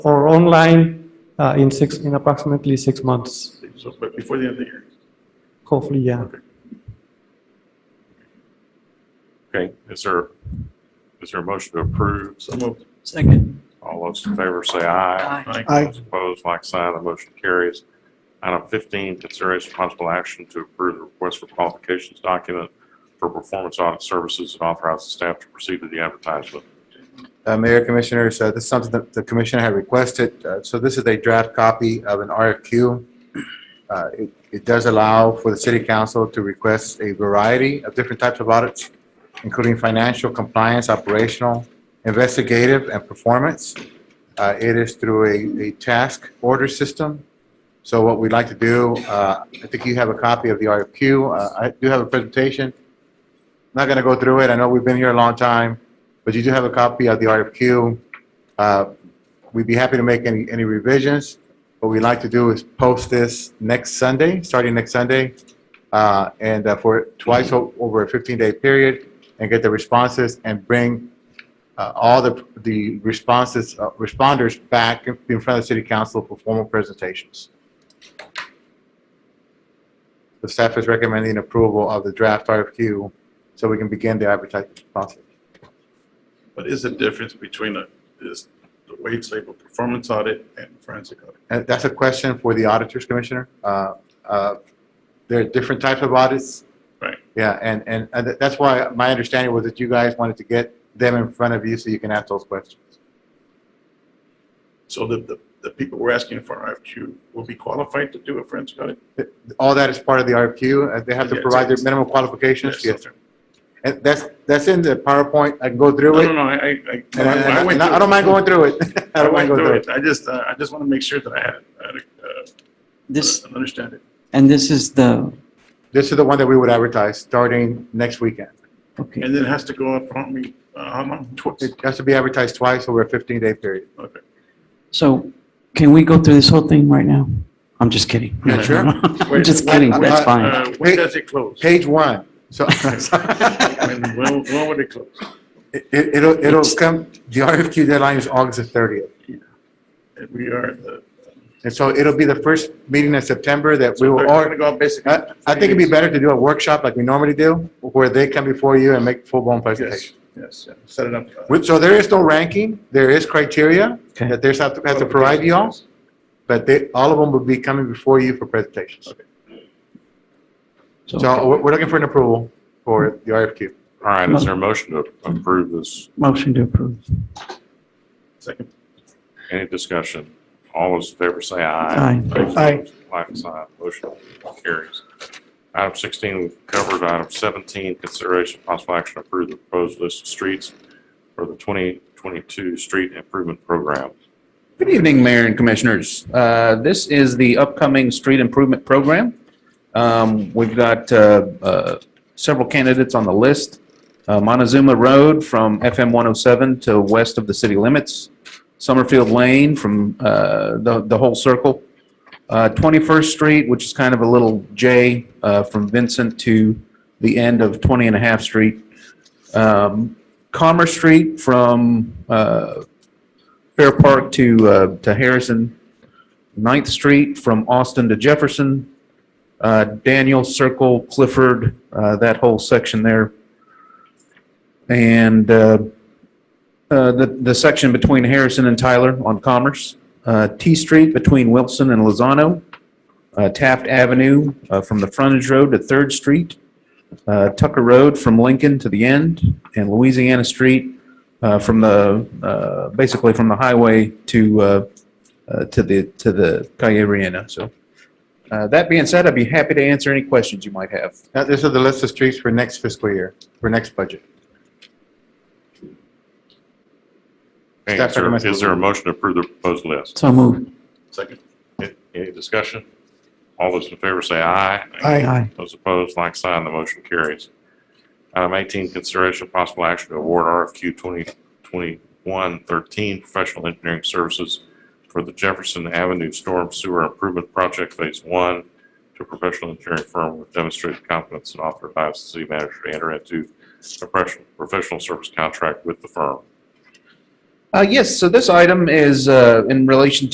or online uh, in six, in approximately six months, So, but before the end of the year. hopefully, yeah. Okay, is there, is there a motion to approve? So moved. Second. All those in favor say aye. Aye. Aye. Those Opposed, like sign, the motion carries. Item 15, consideration possible action to approve the request for qualifications document for performance audit services and authorize the staff to proceed with the advertisement. Uh, Mayor Commissioners, uh, this is something that the Commissioner had requested. Uh, So this is a draft copy of an RFQ. Uh, It it does allow for the City Council to request a variety of different types of audits, including financial, compliance, operational, investigative, and performance. Uh, It is through a- a task order system. So what we'd like to do, uh, I think you have a copy of the RFQ. Uh, I do have a presentation. Not going to go through it. I know we've been here a long time but you do have a copy of the RFQ. Uh, We'd be happy to make any, any revisions. What we'd like to do is post this next Sunday, starting next Sunday, uh, and uh, for twice o- over a 15-day period, and get the responses and bring uh, all the, the responses, uh, responders back in front of the city council for formal presentations. The staff is recommending approval of the draft RFQ so we can begin the advertising process. What is the difference between a, is the wage label performance audit and forensic audit? Uh, That's a question for the auditors, Commissioner. Uh, uh, There are different types of audits. Right. Yeah, and, and and tha- that's why my understanding was that you guys wanted to get them in front of you so you can ask those questions. So the, the, the people we're asking for RFQ will be qualified to do a forensic audit? All that is part of the RFQ. uh, They have to Yeah, provide their it's- minimum qualifications. Yes. okay. And that's, that's in the PowerPoint. I can go No, through no, it. no, I, I- I. And I- I and I went and I- I through don't mind going through it. I I don't mind went going through through it. it. I just, uh, I just want to make sure that I had, I had, uh, This, understand it. and this is the, This is the one that we would advertise starting next weekend. okay, And then it has to go up, how many, uh, how long? Twice. It has to be advertised twice over a 15-day period. Okay. so can we go through this whole thing right now? I'm just kidding. Yeah, sure. I'm just kidding, that's fine. Uh, When does it close? Page one. So. When, when when would it close? It, it- it'll, it'll It's- come, the RFQ deadline is August the thirtieth. And We are, the. And so it'll be the first meeting in September that we We're will, going to or, go up basically. I, I think it'd be better to do a workshop like we normally do, where they come before you and make full-blown presentation. Yes, yes, yeah. set it up. uh, With- So there is no ranking, there is criteria Okay. that there's have to, have to provide you all, but they, all of them will be coming before you for presentations. So So, we're, we're looking for an approval for the RFQ. All right, is there a motion to approve this? motion to approve. Second, Any discussion? All those in favor say Aye. aye. Those Aye. opposed, Like sign, motion carries. Item 16, we've covered. Item 17, consideration of possible action to approve the proposed list of streets for the 2022 Street Improvement Program. Good evening, Mayor and Commissioners. Uh, This is the upcoming street improvement program. Um, We've got uh, uh, several candidates on the list. Uh, Montezuma Road from FM 107 to west of the city limits, Summerfield Lane from uh, the the whole circle, Uh, 21st Street, which is kind of a little J uh, from Vincent to the end of 20 and a half Street, Um, Commerce Street from uh, Fair Park to, uh, to Harrison, Ninth Street from Austin to Jefferson, uh, Daniel Circle, Clifford, uh, that whole section there. And, uh, uh, the, the section between Harrison and Tyler on Commerce, uh, T Street between Wilson and Lozano, uh, Taft Avenue, uh, from the frontage road to Third Street, uh, Tucker Road from Lincoln to the end, and Louisiana Street, uh, from the, uh, basically from the highway to, uh, uh, to the, to the Calle Reina. So, uh, that being said, I'd be happy to answer any questions you might have. Now, this is the list of streets for next fiscal year, for next budget. Okay, Staff Is there- recommends- is there a motion to approve the proposed list? So moved. second, A- Any discussion? All those in favor say aye. Aye. Those opposed, like sign, the motion carries. Item 18, consideration of possible action to award RFQ 2021-13 professional engineering services for the Jefferson Avenue Storm Sewer Improvement Project Phase 1 to a professional engineering firm with demonstrated competence and authorized the city manager to enter into a professional, professional service contract with the firm. Uh, Yes, so this item is uh, in relation